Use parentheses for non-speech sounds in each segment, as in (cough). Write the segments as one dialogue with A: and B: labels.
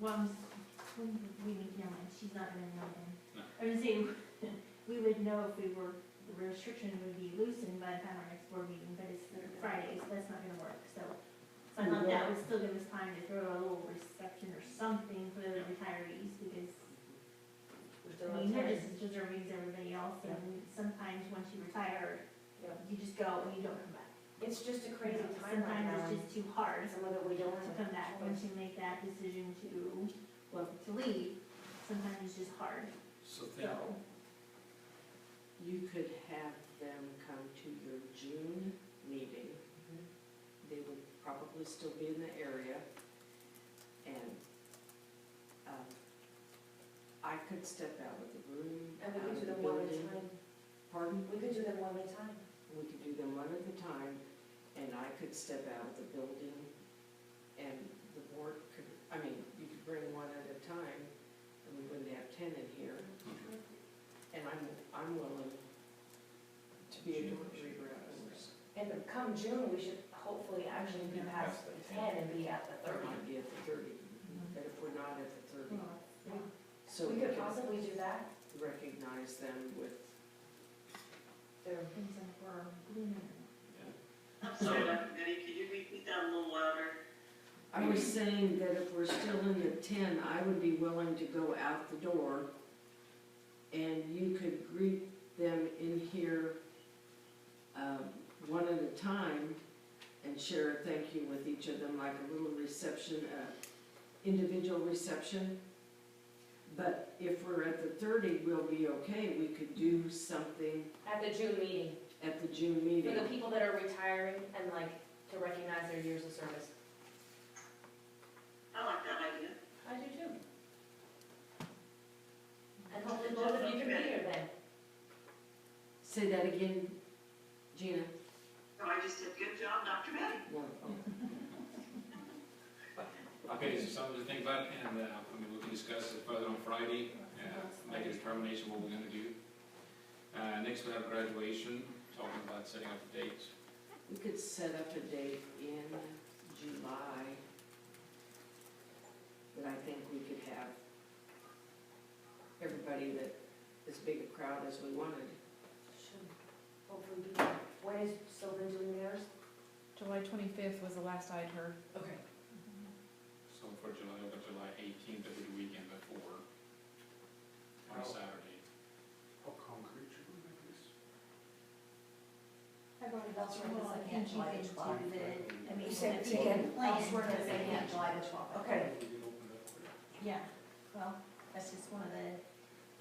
A: Well, I'm s- we, we would know it, she's not gonna know then.
B: No.
A: I would say, (laughs) we would know if we were, the restriction would be loosened by the time our next board meeting, but it's the Friday, so that's not gonna work, so. So I thought that would still give us time to throw a little reception or something for the retirees, because,
C: We still
A: I
C: have
A: mean, they're
C: time.
A: just as deserving as everybody else, and sometimes once you retire,
C: Yeah.
A: you just go and you don't come back.
C: It's just a crazy
A: You know,
C: time right now.
A: Sometimes it's just too hard,
C: Some of it we don't
A: to
C: have.
A: come back once you make that decision to, well, to leave, sometimes it's just hard,
B: So
A: so.
B: think,
D: You could have them come to your June meeting.
C: Mm-hmm.
D: They would probably still be in the area. And um, I could step out of the room,
C: And we
D: out
C: could do
D: of the
A: Um,
C: them one at a
D: building.
C: time.
D: Pardon?
C: We could do them one at a time.
D: We could do them one at a time, and I could step out of the building. And the board could, I mean, you could bring one at a time, and we wouldn't have ten in here. And I'm, I'm willing to be a delivery route.
C: And then come June, we should hopefully actually be past the ten and be at the
D: Or
C: thirty.
D: might be at the thirty, but if we're not at the thirty,
A: well, yeah.
D: so
C: We
D: we
C: could
D: can
C: possibly do that.
D: recognize them with,
C: There.
A: Things like we're blooming.
E: I'm sorry, Dr. Goody, could you repeat that a little louder?
D: I was saying that if we're still in the ten, I would be willing to go out the door and you could greet them in here, um, one at a time and share a thank you with each of them, like a little reception, uh, individual reception. But if we're at the thirty, we'll be okay, we could do something
C: (laughs) At the June meeting,
D: at the June meeting.
C: for the people that are retiring and like to recognize their years of service.
E: I like that idea.
C: I do too. And hopefully both of you can be here then.
D: Say that again, Gina.
E: No, Oh, I just said, good job, Dr. Betty.
D: No.
B: Okay, so something to think about, and, uh, I mean, we can discuss it further on Friday, uh, make a determination what we're gonna do. Uh, next we have graduation, talking about setting up a date.
D: We could set up a date in July that I think we could have everybody that, as big a crowd as we wanted.
C: Should hopefully be here. When is Sylvan doing theirs?
F: July twenty-fifth was the last I'd heard.
C: Okay.
B: So for July, over July eighteenth, every weekend before, on a Saturday.
G: How concrete should we make this?
A: I've already got
C: That's right,
A: some
C: it's
A: little
C: like
A: hinges
C: July
A: into the,
G: twelfth.
A: I mean,
C: You said
A: the
C: weekend.
A: plan,
C: I was working
A: because
C: on
A: they
C: it.
A: have July the twelfth.
C: Okay.
G: We can open it up.
A: Yeah, well, that's just one of the,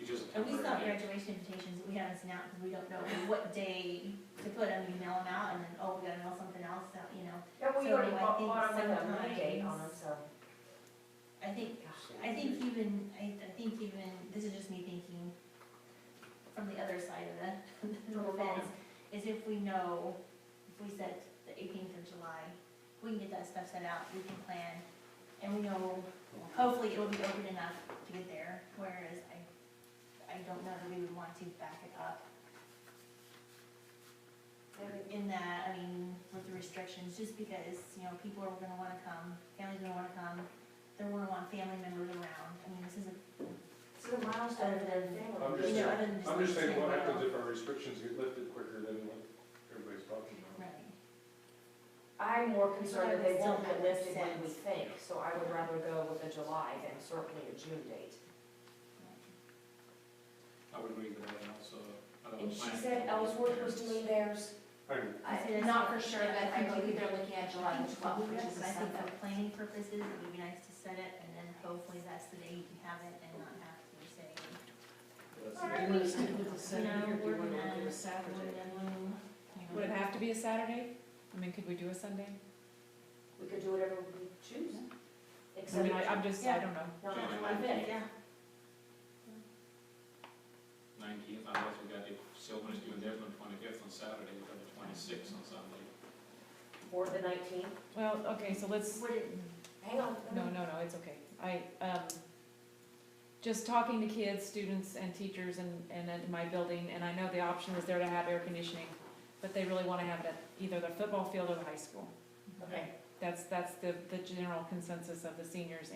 B: It's just a
A: at least not
B: temporary date.
A: graduation invitations that we have is now, because we don't know what day to put them, we mail them out, and then, oh, we gotta mail something else out, you know.
C: Yeah, we
A: So
C: already
A: I
C: bought
A: think
C: bought them with a money date on them,
A: sometimes-
C: so.
A: I think
G: So
A: I think
G: we-
A: even, I, I think even, this is just me thinking from the other side of the, (laughs) the fence, is if we know, if we set the eighteenth of July, we can get that stuff set out, we can plan, and we know, hopefully it'll be open enough to get there, whereas I, I don't know that we would want to back it up in that, I mean, with the restrictions, just because, you know, people are gonna wanna come, families are gonna wanna come, they're gonna want family members around, I mean, this is a,
C: This is a milestone for their family.
G: I'm
A: you
G: just
A: know, other than just.
G: I'm just saying, what
A: well,
G: happens if our restrictions get lifted quicker than what everybody's talking about?
A: Right,
C: I'm more concerned that they won't
A: That
C: get
A: makes
C: listed when we
A: sense.
C: think, so I would rather go with a July than certainly a June date.
B: I would agree with that, and also. I don't know,
C: And she
B: plan-
C: said Ellsworth was doing theirs.
G: I'm,
A: I'm
C: Not for sure, but I
A: think
C: believe they're looking at July
A: I
C: the
A: think,
C: twelfth, which is
A: I
C: a
A: think
C: Sunday.
A: for planning purposes, it would be nice to set it, and then hopefully that's the day you can have it and not have to say,
D: Do you want to stick with the Saturday or do you
A: No, we're
D: want to
A: gonna-
D: do a
A: we're
D: Saturday?
A: gonna, you
F: Would it
A: know.
F: have to be a Saturday? I mean, could we do a Sunday?
C: We could do whatever we choose.
F: I
C: Except
F: mean,
C: not
F: I- I'm just, I don't know.
C: on July fifth.
A: Yeah,
B: Nineteenth, unless we got, if Sylvan is doing theirs on twenty-fifth on Saturday, we've got the twenty-sixth on Sunday.
C: Or the nineteenth.
F: Well, okay, so let's,
A: would it,
C: Hang on. let me-
F: no, no, no, it's okay. I, um, just talking to kids, students and teachers and, and in my building, and I know the option was there to have air conditioning, but they really want to have it at either the football field or the high school.
C: Okay.
F: That's, that's the, the general consensus of the seniors